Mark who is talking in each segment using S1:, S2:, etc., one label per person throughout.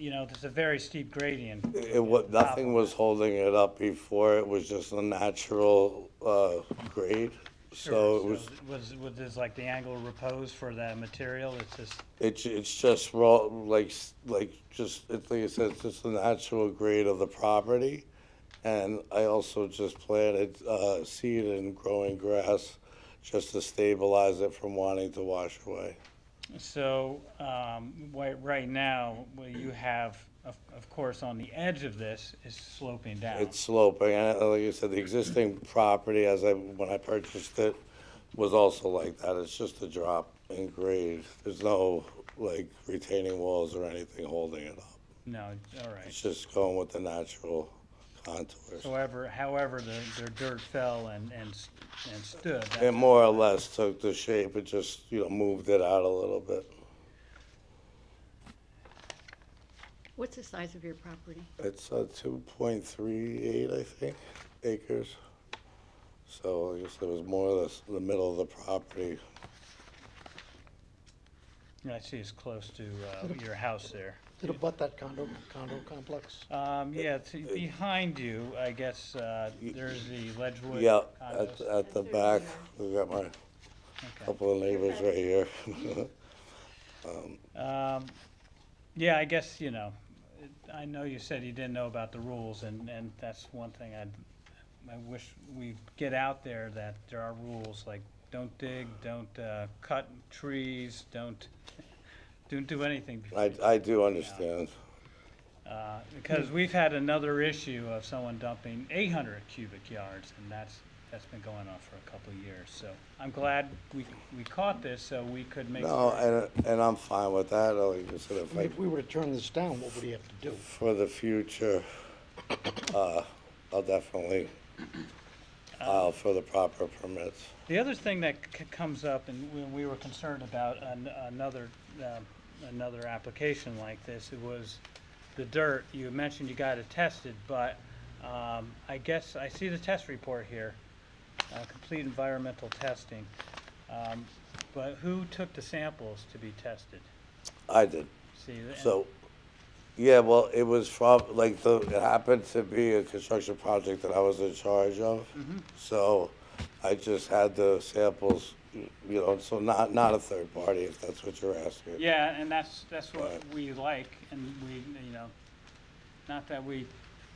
S1: you know, there's a very steep gradient.
S2: It wa, nothing was holding it up before, it was just a natural, uh, grade. So it was,
S1: Was, was this like the angle of repose for that material, it's just,
S2: it's, it's just raw, like, s- like, just, it's like I said, it's just the natural grade of the property. And I also just planted, uh, seed and growing grass just to stabilize it from wanting to wash away.
S1: so, um, why, right now, what you have, of, of course, on the edge of this is sloping down.
S2: It's sloping, and uh, like I said, the existing property as I, when I purchased it, was also like that, it's just a drop in grade. There's no, like, retaining walls or anything holding it up.
S1: No, all right.
S2: It's just going with the natural contours.
S1: However, however, their, their dirt fell and, and, s- and stood. that's-
S2: It more or less took the shape, it just, you know, moved it out a little bit.
S3: What's the size of your property?
S2: It's, uh, two point three eight, I think, acres. So I guess it was more or less the middle of the property.
S1: I see it's close to, uh, your house there.
S4: Did it butt that condo, condo complex?
S1: Um, yeah, it's behind you, I guess, uh, there's the Ledgewood
S2: Yeah,
S1: condos.
S2: at, at the back, we got my
S1: Okay.
S2: Couple of neighbors right here.
S1: Um, yeah, I guess, you know, it- I know you said you didn't know about the rules, and, and that's one thing I'd, I wish we'd get out there that there are rules, like, don't dig, don't, uh, cut trees, don't, don't do anything.
S2: I, I do understand.
S1: Uh, because we've had another issue of someone dumping eight hundred cubic yards, and that's, that's been going on for a couple of years, so I'm glad we, we caught this, so we could make.
S2: No, and, and I'm fine with that, like I said, if I,
S4: If we were to turn this down, what would he have to do?
S2: for the future, uh, I'll definitely file for the proper permits.
S1: The other thing that c- comes up, and when we were concerned about an- another, um, another application like this, it was the dirt. You mentioned you got it tested, but um, I guess I see the test report here, uh, complete environmental testing. Um, But who took the samples to be tested?
S2: I did,
S1: See, and-
S2: so, yeah, well, it was from, like, the, it happened to be a construction project that I was in charge of.
S1: Mm-hmm.
S2: So I just had the samples, you know, so not, not a third party, if that's what you're asking.
S1: Yeah, and that's, that's what
S2: Right.
S1: we like, and we, you know, not that we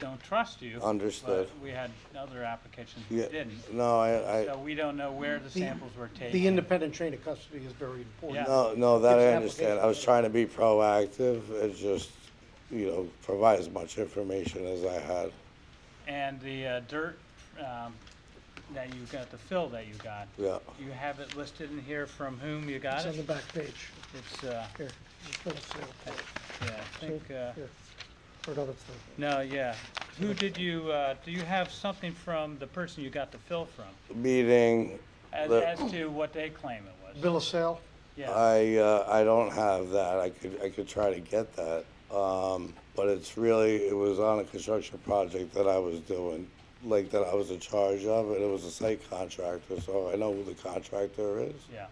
S1: don't trust you.
S2: Understood.
S1: But we had other applications we
S2: Yeah,
S1: didn't.
S2: no, I, I.
S1: So we don't know where the samples were taken.
S4: The independent chain of custody is very important.
S1: Yeah.
S2: No, no, that I
S4: It's
S2: understand. I was
S4: application.
S2: trying to be proactive and just, you know, provide as much information as I had.
S1: And the uh, dirt um, that you got, the fill that you got,
S2: Yeah,
S1: you have it listed in here from whom you got
S4: It's on the
S1: it?
S4: back page.
S1: It's, uh,
S4: Here, just put it there.
S1: yeah, I think, uh,
S4: Here. Or another thing.
S1: no, yeah. Who did you, uh, do you have something from the person you got the fill from?
S2: meeting,
S1: As,
S2: The-
S1: as to what they claim it was?
S4: Bill of sale,
S1: Yeah,
S2: I, uh, I don't have that. I could, I could try to get that. Um, but it's really, it was on a construction project that I was doing, like that I was in charge of, and it was a site contractor, so I know who the contractor is.
S1: yeah.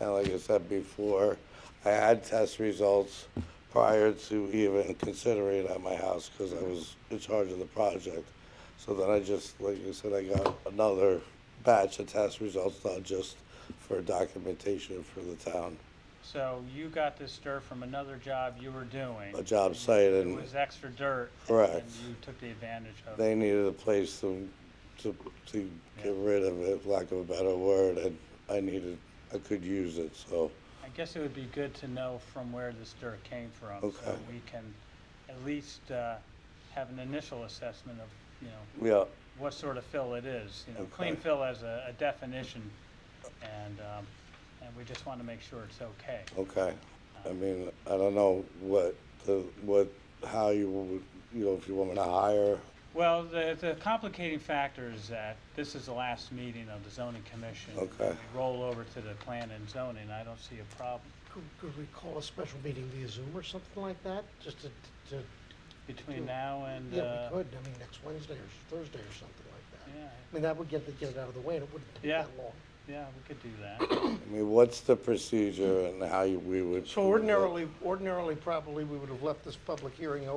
S2: And like I said before, I had test results prior to even considering it at my house because I was in charge of the project. So then I just, like I said, I got another batch of test results, not just for documentation for the town,
S1: So you got this dirt from another job you were doing.
S2: a job site,
S1: It
S2: and
S1: was extra dirt.
S2: Correct.
S1: And you took the advantage of it.
S2: they needed a place to, to, to get rid of it, for lack of a better word, and I needed, I could use it, so.
S1: I guess it would be good to know from where this dirt came from, so
S2: Okay.
S1: we can at least uh, have an initial assessment of, you know,
S2: Yeah,
S1: what sort of fill it is. You know, clean
S2: Okay.
S1: fill as a a definition, and, um, and we just want to make sure it's okay.
S2: Okay, I mean, I don't know what the, what, how you would, you know, if you want me to hire,
S1: Well, the, the complicating factor is that this is the last meeting of the zoning commission.
S2: Okay.
S1: We Roll over to the plan and zoning, I don't see a problem
S4: could, could we call a special meeting via Zoom or something like that? Just to, to,
S1: between now and,
S4: yeah,
S1: uh,
S4: we could, I mean, next Wednesday or Thursday or something like that.
S1: yeah,
S4: I mean, that would get, the- get it out of the way, and it wouldn't take
S1: Yeah.
S4: that long.
S1: yeah, we could do that.
S2: I mean, what's the procedure and how you- we would?
S4: So ordinarily, ordinarily, probably, we would have left this public hearing open